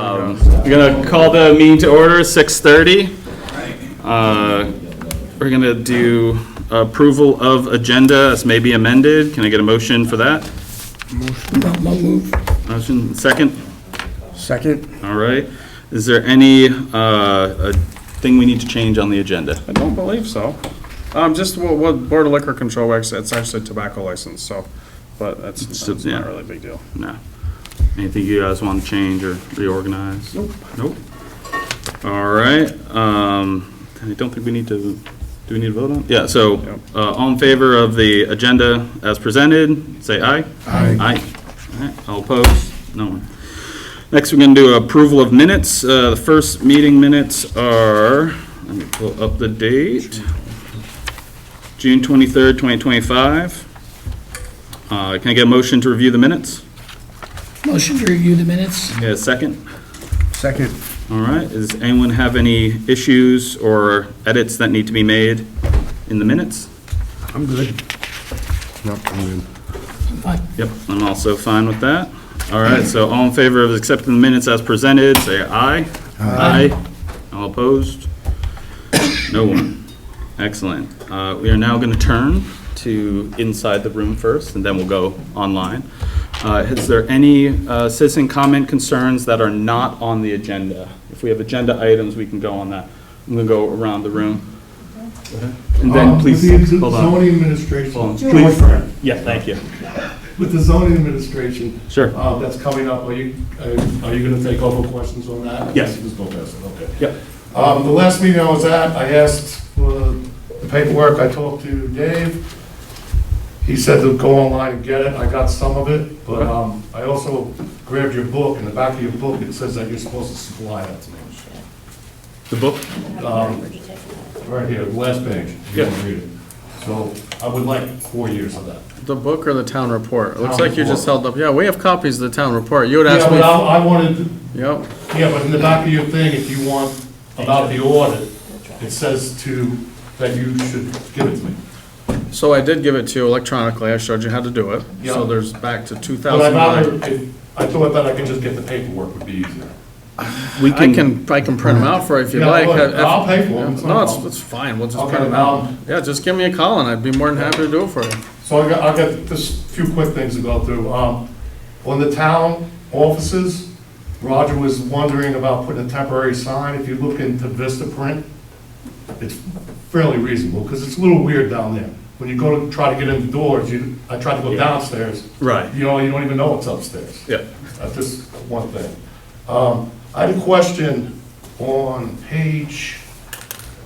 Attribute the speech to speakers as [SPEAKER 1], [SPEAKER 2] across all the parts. [SPEAKER 1] We're gonna call the meeting to order, 6:30. Uh, We're gonna do approval of agenda as may be amended. Can I get a motion for that?
[SPEAKER 2] I'll move.
[SPEAKER 1] Motion, second?
[SPEAKER 2] Second.
[SPEAKER 1] All right. Is there any uh, uh, thing we need to change on the agenda?
[SPEAKER 3] I don't believe so. Um, just what, what Board of Liquor Control, works, it's actually tobacco license, so, but that's,
[SPEAKER 1] It's-
[SPEAKER 3] that's
[SPEAKER 1] yeah.
[SPEAKER 3] not really a big deal.
[SPEAKER 1] No. Anything you guys want to change or reorganize? Nope. Nope. All right, um, I don't think we need to, do we need to vote on? Yeah, so,
[SPEAKER 3] Yep.
[SPEAKER 1] uh, all in favor of the agenda as presented, say aye. Aye. Aye. All right, all opposed? No one. Next, we're gonna do approval of minutes. Uh, the first meeting minutes are, let me pull up the date. June twenty-third, twenty twenty-five. Uh, can I get a motion to review the minutes?
[SPEAKER 2] Motion to review the minutes.
[SPEAKER 1] Yeah, second?
[SPEAKER 2] Second.
[SPEAKER 1] All right, does anyone have any issues or edits that need to be made in the minutes?
[SPEAKER 4] I'm good. Nope, I'm good.
[SPEAKER 1] Yep, I'm also fine with that. All right, so all in favor of accepting the minutes as presented, say aye. Aye. All opposed? No one. Excellent. Uh, We are now going to turn to inside the room first, and then we'll go online. Uh, Is there any uh, citizen comment concerns that are not on the agenda? If we have agenda items, we can go on that. I'm going to go around the room. And then,
[SPEAKER 5] Um,
[SPEAKER 1] please,
[SPEAKER 5] With the
[SPEAKER 1] hold on.
[SPEAKER 5] zoning
[SPEAKER 1] Hold on.
[SPEAKER 5] administration,
[SPEAKER 1] Please. Yeah, thank you.
[SPEAKER 5] with the zoning administration,
[SPEAKER 1] Sure.
[SPEAKER 5] uh, that's coming up, are you, uh, are- are you gonna take over questions on that?
[SPEAKER 1] Yes.
[SPEAKER 5] Just go past it, okay.
[SPEAKER 1] Yep.
[SPEAKER 5] Um, the last meeting I was at, I asked for the paperwork, I talked to Dave. He said to go online and get it, I got some of it, but, um, I also grabbed your book, in the back of your book, it says that you're supposed to supply that to me.
[SPEAKER 1] The book?
[SPEAKER 5] Um, Right here, last page, if you
[SPEAKER 1] Yeah.
[SPEAKER 5] want to read it. So, I would like four years of that.
[SPEAKER 3] The book or the town report? It looks
[SPEAKER 5] Town
[SPEAKER 3] like you just
[SPEAKER 5] report.
[SPEAKER 3] held up, yeah, we have copies of the town report. You would
[SPEAKER 5] Yeah,
[SPEAKER 3] ask
[SPEAKER 5] but
[SPEAKER 3] me,
[SPEAKER 5] I I wanted,
[SPEAKER 3] yep,
[SPEAKER 5] yeah, but in the back of your thing, if you want about the audit, it says to, that you should give it to me.
[SPEAKER 3] so I did give it to you electronically, I showed you how to do it.
[SPEAKER 5] Yeah.
[SPEAKER 3] So there's back to two
[SPEAKER 5] But
[SPEAKER 3] thousand
[SPEAKER 5] I
[SPEAKER 3] nine.
[SPEAKER 5] thought, if- I thought that I could just get the paperwork would be easier.
[SPEAKER 1] We
[SPEAKER 3] I can, I can print them out for you if you'd
[SPEAKER 5] Yeah,
[SPEAKER 3] like.
[SPEAKER 5] look,
[SPEAKER 3] Have- have-
[SPEAKER 5] I'll pay for 'em, it's not a
[SPEAKER 3] No, it's,
[SPEAKER 5] problem.
[SPEAKER 3] it's fine, we'll just
[SPEAKER 5] Okay,
[SPEAKER 3] print them
[SPEAKER 5] now-
[SPEAKER 3] out. Yeah, just give me a call and I'd be more than happy to do it for you.
[SPEAKER 5] So I got, I got just a few quick things to go through. Um, On the town offices, Roger was wondering about putting a temporary sign. If you look into Vista Print, it's fairly reasonable, because it's a little weird down there. When you go to try to get in the doors, you, I tried to go downstairs.
[SPEAKER 1] Right.
[SPEAKER 5] You know, you don't even know what's upstairs.
[SPEAKER 1] Yeah.
[SPEAKER 5] That's Uh, just one thing. Um, I had a question on page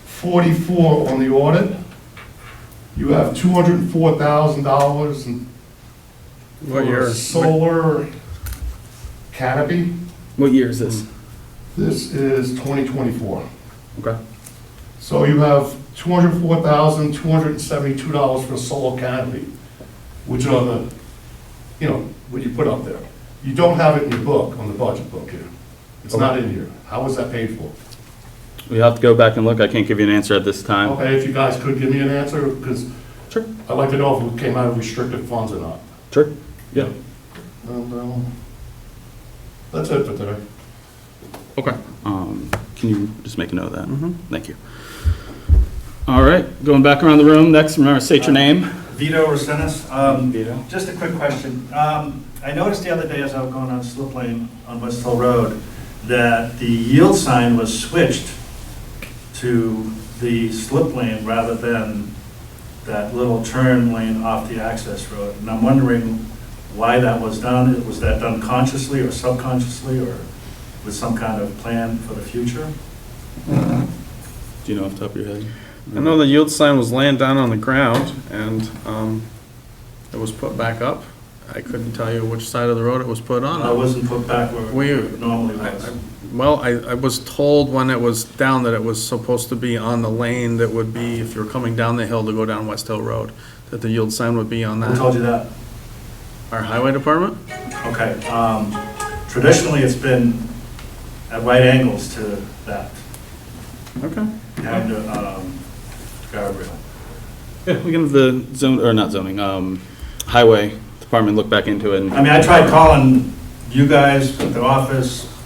[SPEAKER 5] 44 on the audit. You have $204,000 in
[SPEAKER 3] What
[SPEAKER 5] for
[SPEAKER 3] year?
[SPEAKER 5] Solar canopy.
[SPEAKER 1] What year is this?
[SPEAKER 5] This is 2024.
[SPEAKER 1] Okay.
[SPEAKER 5] So you have $204,272 for solar canopy, which are the, you know, what you put up there. You don't have it in your book, on the budget book here. It's not in here. How was that paid for?
[SPEAKER 1] We have to go back and look. I can't give you an answer at this time.
[SPEAKER 5] Okay, if you guys could give me an answer, because
[SPEAKER 1] Sure.
[SPEAKER 5] I'd like to know if it came out of restricted funds or not.
[SPEAKER 1] Sure. Yeah.
[SPEAKER 5] And, um, That's it for today.
[SPEAKER 3] Okay.
[SPEAKER 1] Um, Can you just make a note of that? Mm-hmm. Thank you. All right, going back around the room. Next, remember, state your name.
[SPEAKER 6] Vito Rosenis. Um,
[SPEAKER 1] Vito.
[SPEAKER 6] Just a quick question. Um, I noticed the other day as I was going on slip lane on West Hill Road that the yield sign was switched to the slip lane rather than that little turn lane off the access road. And I'm wondering why that was done. Was that done consciously or subconsciously or with some kind of plan for the future?
[SPEAKER 1] Do you know off the top of your head?
[SPEAKER 3] I know the yield sign was laying down on the ground and um, it was put back up. I couldn't tell you which side of the road it was put
[SPEAKER 6] I
[SPEAKER 3] on.
[SPEAKER 6] wasn't put back where
[SPEAKER 3] We,
[SPEAKER 6] it normally
[SPEAKER 3] I-
[SPEAKER 6] was.
[SPEAKER 3] I- well, I, I was told when it was down that it was supposed to be on the lane that would be, if you're coming down the hill to go down West Hill Road, that the yield sign would be on
[SPEAKER 6] Who told
[SPEAKER 3] that.
[SPEAKER 6] you that?
[SPEAKER 3] Our highway department?
[SPEAKER 6] Okay, um, traditionally, it's been at right angles to that,
[SPEAKER 3] Okay.
[SPEAKER 6] and, um, guardrail.
[SPEAKER 1] Yeah, we can have the zone, or not zoning, um, highway department look back into it.
[SPEAKER 6] I
[SPEAKER 1] and-
[SPEAKER 6] mean, I tried calling you guys at the office,